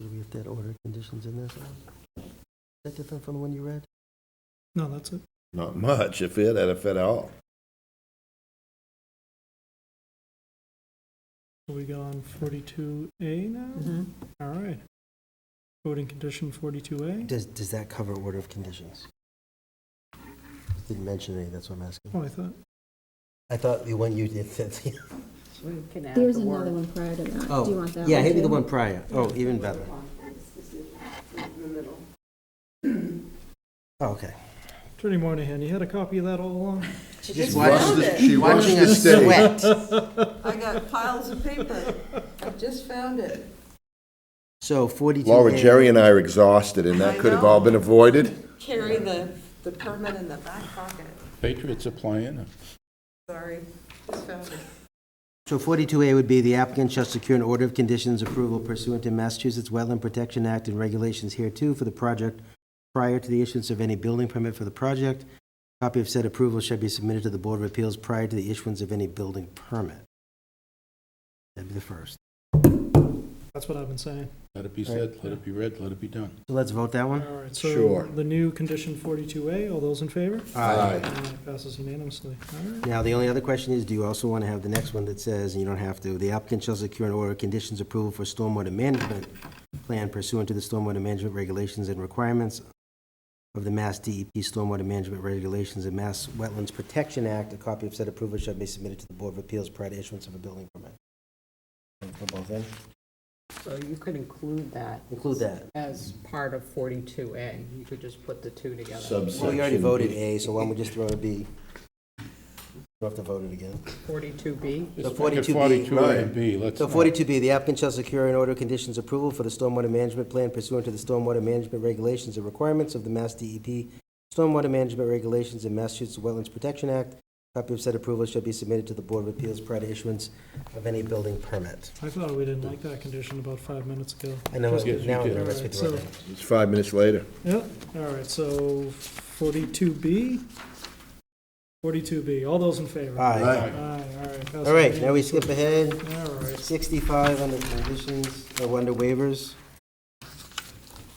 Maybe if that order of conditions in there somewhere. Is that different from the one you read? No, that's it. Not much, if it, if at all. So we go on forty-two A now? Mm-hmm. All right. Voting condition forty-two A? Does, does that cover order of conditions? Didn't mention any, that's what I'm asking. Oh, I thought, I thought the one you did said. We can add There's the another word. one prior to that. Do you Oh, want that one? yeah, maybe too? the one prior. Oh, even better. Oh, Okay. Attorney Moynihan, you had a copy of that all along? She Just just watch found the- it. She wants Watching to us stay. sweat. I got piles of paper. I just found it. So 42. Laura, Jerry and I are exhausted, and that could have all been avoided. Carry the, the permit in the back pocket. Patriots are playing. Sorry, just found it. So 42A would be the applicant shall secure an order of conditions approval pursuant to Massachusetts Wetland Protection Act and regulations hereto for the project prior to the issuance of any building permit for the project. Copy of said approval shall be submitted to the Board of Appeals prior to the issuance of any building permit. That'd be the first. That's what I've been saying. Let it be said, let it be read, let it be done. So let's vote that All one? right, so Sure. the new condition forty-two A, all those in favor? Aye. Aye, Passes unanimously. All right. Now, the only other question is, do you also want to have the next one that says, and you don't have to, the applicant shall secure an order of conditions approval for stormwater management plan pursuant to the stormwater management regulations and requirements of the Mass DEP Stormwater Management Regulations and Mass Wetlands Protection Act. A copy of said approval shall be submitted to the Board of Appeals prior to issuance of a building permit. For both ends? So you could include that Include that. as part of 42A. You could just put the two together. Well, we already Subsection voted B. A, so why don't we just throw a B? We'll have to vote it again. 42B, So Just make it 42B, 42A right. and B, let's So not. 42B, the applicant shall secure an order of conditions approval for the stormwater management plan pursuant to the stormwater management regulations and requirements of the Mass DEP, stormwater management regulations and Massachusetts Wetlands Protection Act. Copy of said approval shall be submitted to the Board of Appeals prior to issuance of any building permit. I thought we didn't like that condition about five minutes ago. I know, Just get- now I'm you get- nervous with the Alright, order. It's five minutes later. Yep, all right, so forty-two B? Forty-two B, all those in favor? Aye. Aye, all right. passes All right, now we unanimously. skip ahead. All right. 65 under conditions, or under waivers.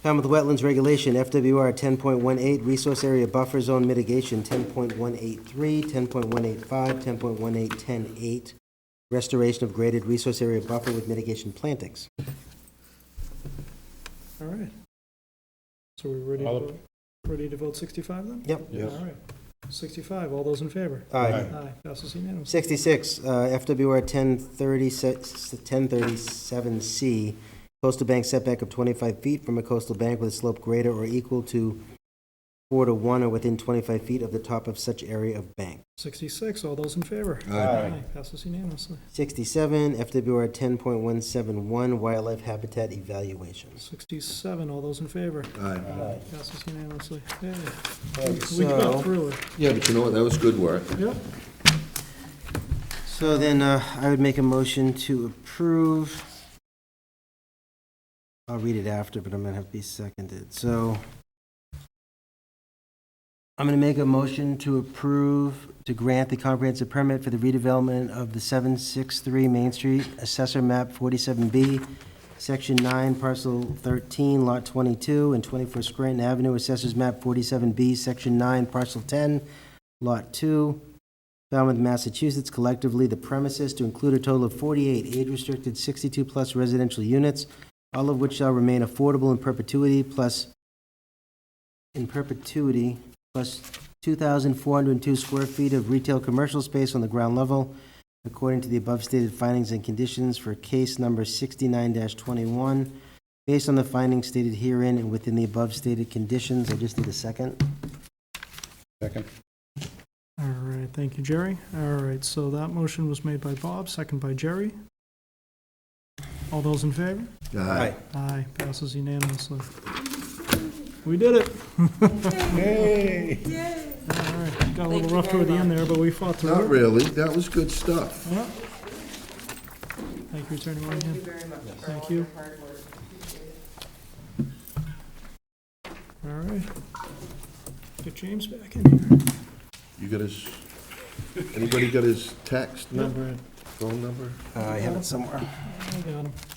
Falmouth Wetlands Regulation, FWR 10.18, Resource Area Buffer Zone Mitigation, 10.183, 10.185, 10.18, 10.8, Restoration of Graded Resource Area Buffer with Mitigation Plantings. All right. So we're ready, to All vote- ready to vote 65 then? Yep. Yes. All right. 65, all those in favor? Aye. Aye, passes unanimously. 66, uh, FWR 1037C, coastal bank setback of 25 feet from a coastal bank with a slope greater or equal to 4 to 1 or within 25 feet of the top of such area of bank. 66, all those in favor? Aye. Aye, passes unanimously. 67, FWR 10.171, wildlife habitat evaluations. 67, all those in favor? Aye. Aye. Passes unanimously. Yay. We got So, through it. Yeah, but you know what, that was good work. Yep. so then uh, I would make a motion to approve. I'll read it after, but I'm going to have to be seconded. So I'm going to make a motion to approve, to grant the comprehensive permit for the redevelopment of the 763 Main Street, Assessor Map 47B, Section 9, Parcel 13, Lot 22, and 24 Scranton Avenue, Assessors Map 47B, Section 9, Parcel 10, Lot 2, Falmouth, Massachusetts, collectively the premises to include a total of 48 age-restricted 62-plus residential units, all of which shall remain affordable in perpetuity, plus, in perpetuity, plus 2,402 square feet of retail commercial space on the ground level, according to the above stated findings and conditions for case number 69-21, based on the findings stated herein and within the above stated conditions. I just need a second. Second. All right, thank you, Jerry. All right, so that motion was made by Bob, second by Jerry. All those in favor? Aye. Aye, passes unanimously. We did it. Yay! All right, got a Thank little you rough very toward the end much. there, but we fought through it. Not really, that was good stuff. Yeah. Thank you, Attorney Thank you Moynihan. very much for Thank all you. your hard work. Appreciate it. All right. Get James back in here. You got his, anybody got his text Yep, number, phone number? Uh, I have it somewhere. I got him.